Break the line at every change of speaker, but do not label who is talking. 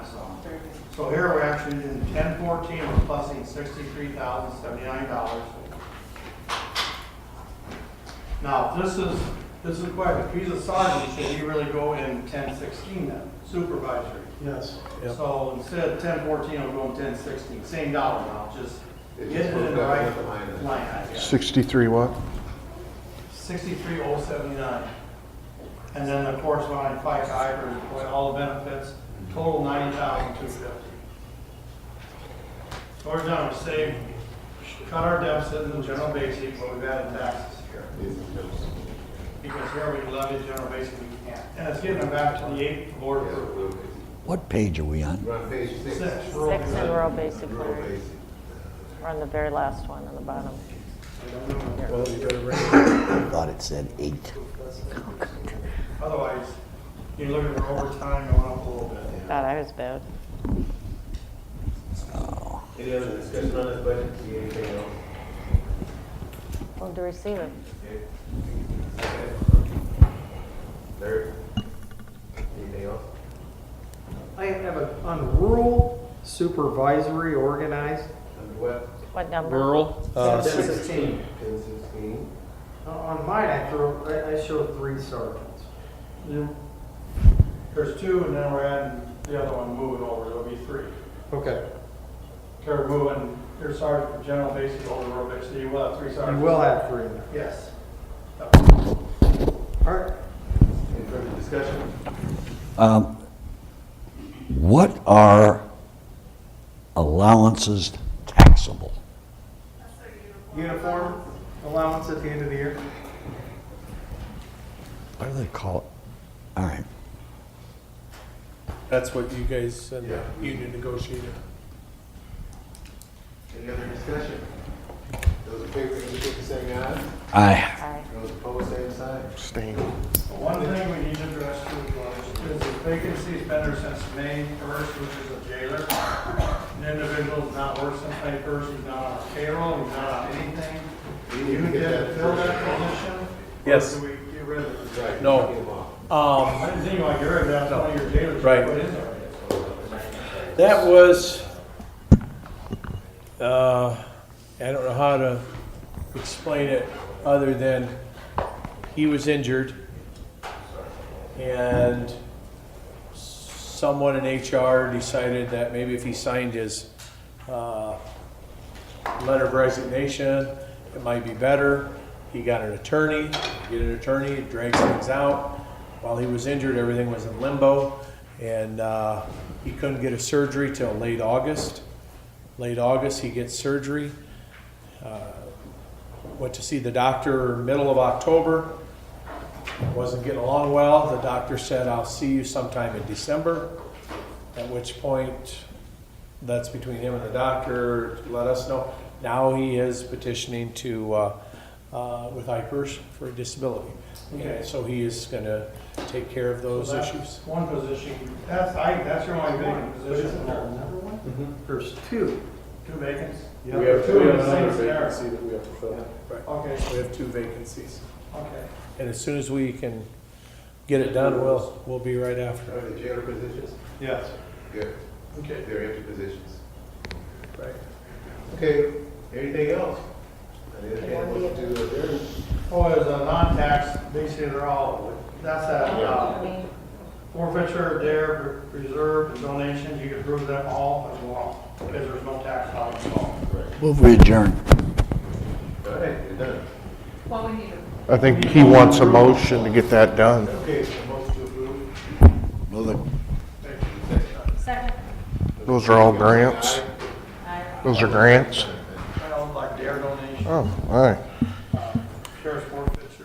So here we're actually in ten fourteen, we're plussing sixty-three thousand seventy-nine dollars. Now, this is, this is quite, if he's a sergeant, should he really go in ten sixteen then, supervisory?
Yes.
Yep.
So instead of ten fourteen, I'll go in ten sixteen, same dollar amount, just
It
get
just
it
goes
in the
back
right
to the line item.
line, I guess.
63 what?
Sixty-three oh seventy-nine. And then the corresponding FICA, IRS, all the benefits, total ninety thousand two fifty. So we're done, we saved, cut our deficit in the general basic, but we've added taxes here. Because here we levy general basic, we can't. And it's getting back to the eight board approved.
What page are we on?
We're on page six.
Six, rural.
Rural
Six in rural basic learning.
basic.
We're on the very last one on the bottom.
I thought it said eight.
Otherwise, you're looking for overtime going up a little bit.
God, I was bad.
Any other discussion on this budget? See anything else?
Move to receive it.
Okay. Larry? Anything else?
I have a, on rural supervisory organized,
On what?
What number?
Rural,
uh,
Ten
six-
sixteen. Ten sixteen.
Uh, on mine, I threw, I, I showed three sergeants.
There's two, and then we're adding the other one, moving over, there'll be three.
Okay.
They're moving, your sergeant from general basic over to rural basic, so you will have three
You
sergeants.
will have three in there.
Yes.
All right,
Any further discussion?
Um, What are allowances taxable?
uniform allowance at the end of the year.
What do they call it? All right.
that's what you guys and the
Yeah.
union negotiated.
Any other discussion? Those in favor, indicate by saying aye.
I,
Aye.
Those opposed, same sign.
Abstain.
The One thing we need to address too was, is the vacancy's been there since May first, which is a jailer. An individual's not worked since May first, he's not on payroll, he's not on anything.
We
You
need to get
did
that
fill
first.
that position?
Yes.
Or do we get rid of it?
Right.
No.
Get them off.
Um,
I didn't think about your, that's one of your jailers.
Right.
What is it?
that was, uh, I don't know how to explain it other than he was injured and someone in HR decided that maybe if he signed his, uh, letter of resignation, it might be better. He got an attorney, get an attorney, it drags things out. While he was injured, everything was in limbo, and uh, he couldn't get a surgery till late August. Late August, he gets surgery. Uh, Went to see the doctor middle of October. Wasn't getting along well. The doctor said, "I'll see you sometime in December." At which point, that's between him and the doctor, let us know. Now he is petitioning to, uh, uh, with IPERS for a disability.
Okay.
And so he is gonna take care of those
So that's
issues.
One position, that's, I, that's your only vacant position,
another one? There's two.
two vacancies?
Mm-hmm. We
have- we have another vacancy
that we have to fill. Right,
Okay,
we have two vacancies.
okay.
And as soon as we can get it done, we'll, we'll be right after.
Are the jailer positions?
Yes.
Good.
Okay.
They're empty positions.
Right.
Okay, anything else? I entertain a motion to adjourn.
Oh, there's a non-tax, basically they're all, that's that uh,
Aye.
forfeiture, dare, reserve, and donation, you can approve them all as well, because there's no tax dollars involved.
move we adjourn.
All right, you're done.
Well, we need a
I think he wants a motion to get that done.
Okay, a motion to approve.
Move it.
second.
Those are all grants? Those are grants?
I don't like dare donation.
Oh, all right.